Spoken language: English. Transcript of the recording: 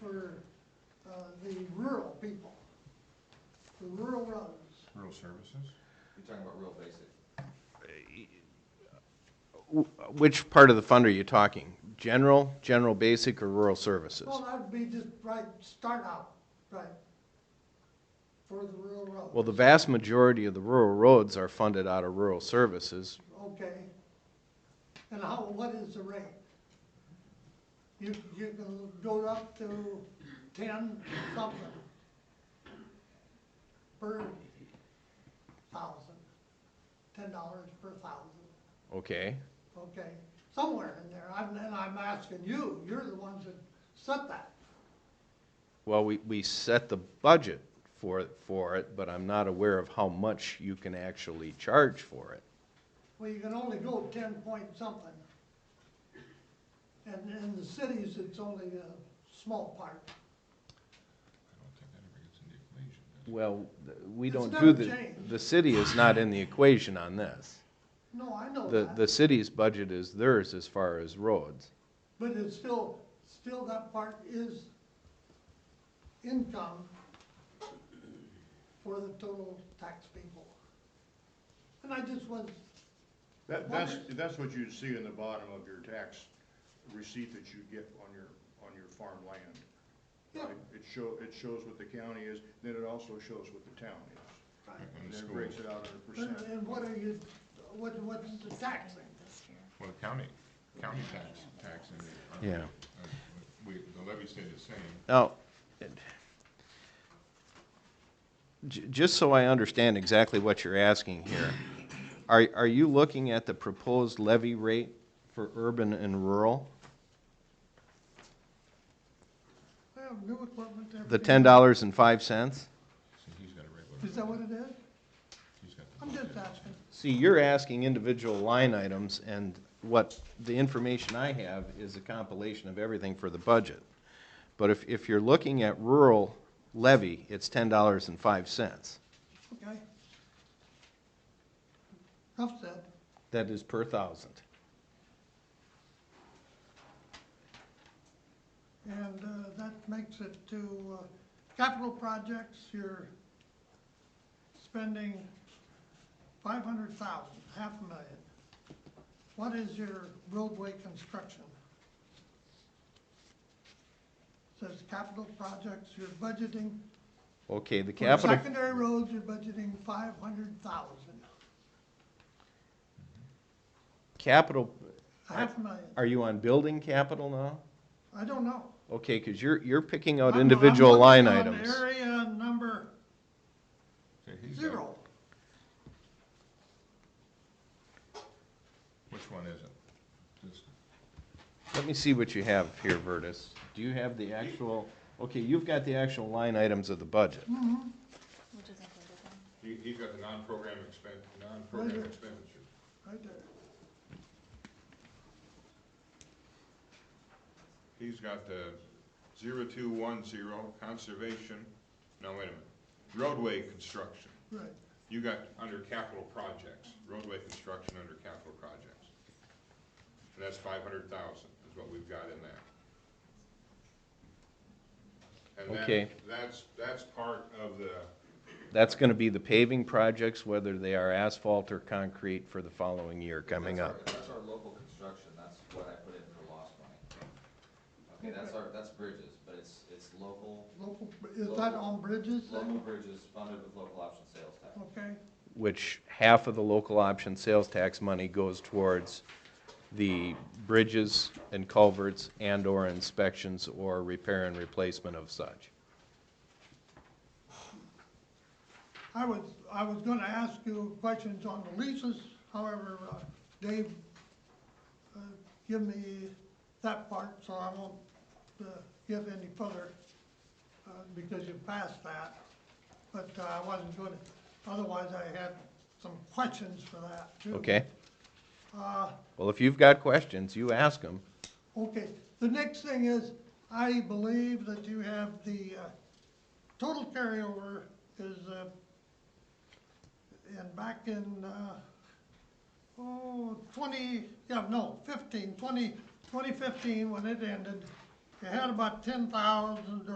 for uh, the rural people, the rural roads. Rural services? You're talking about real basic. Wh- Which part of the fund are you talking? General, general basic, or rural services? Well, that'd be just right, start out, right, for the rural roads. Well, the vast majority of the rural roads are funded out of rural services. Okay. And how, what is the rate? You, you can go up to ten something per thousand, ten dollars per thousand. Okay, Okay, somewhere in there, I'm, and I'm asking you, you're the ones that set that. well, we, we set the budget for, for it, but I'm not aware of how much you can actually charge for it. Well, you can only go ten point something. And in the cities, it's only a small part. I don't think that ever gets in the equation. does it? Well, th- we It's don't never do the, changed. the city is not in the equation on this. No, I know The, the that, city's budget is theirs as far as roads. but it's still, still that part is income for the total tax people. And I just was, That, that's, that's what you'd see in the bottom of your tax receipt that you get on your, on your farmland. yeah, It- It show, it shows what the county is, then it also shows what the town is. right. And And the then it breaks schools, it out in a And, percent. and what are you, what, what's the taxing? well, the county, county tax, tax and the. uh, Yeah. uh, We, the levy stayed the same. Now, it- j- just so I understand exactly what you're asking here, are, are you looking at the proposed levy rate for urban and rural? Well, new equipment, everything. The ten dollars and five cents? See, he's got it right. Is that what it is? He's got the. I'm just asking. See, you're asking individual line items, and what, the information I have is a compilation of everything for the budget. But if, if you're looking at rural levy, it's ten dollars and five cents. Okay. Enough said. That is per thousand. And uh, that makes it to uh, capital projects, you're spending five hundred thousand, half a million. What is your roadway construction? Says capital projects, you're budgeting, Okay, the for capital. secondary roads, you're budgeting five hundred thousand, Capital, half a million. are you on building capital now? I don't know. Okay, because you're, you're picking I'm- out I'm individual line looking on items. Area number See, he's got- zero. Which one is it? This- Let me see what you have here, Vertus. Do you have the actual, okay, you've got the actual line items of the budget. Which is included then. He, he's got the non-program expen, non-program Right. expenditure. Right there. He's got the zero-two-one-zero conservation, no, wait a minute, roadway construction. Right, You got under capital projects, roadway construction under capital projects. And that's five hundred thousand is what we've got in that. And that- Okay. That's, that's part of the, That's going to be the paving projects, whether they are asphalt or concrete for the following year coming That's our- up. That's our local construction, that's what I put in for lost money. Okay, that's our, that's bridges, but it's, it's local, local, is that on bridges local then? bridges funded with local option sales tax. Okay, Which half of the local option sales tax money goes towards the bridges and culverts and/or inspections or repair and replacement of such. I was, I was gonna ask you questions on the leases, however, uh, Dave, uh, give me that part, so I won't, uh, give any further, uh, because you passed that. But uh, I wasn't gonna, otherwise I had some questions for that too. Okay? Uh, Well, if you've got questions, you ask them. Okay, the next thing is, I believe that you have the, uh, total carryover is, uh, and back in, uh, oh, twenty, yeah, no, fifteen, twenty, twenty fifteen, when it ended, you had about ten thousand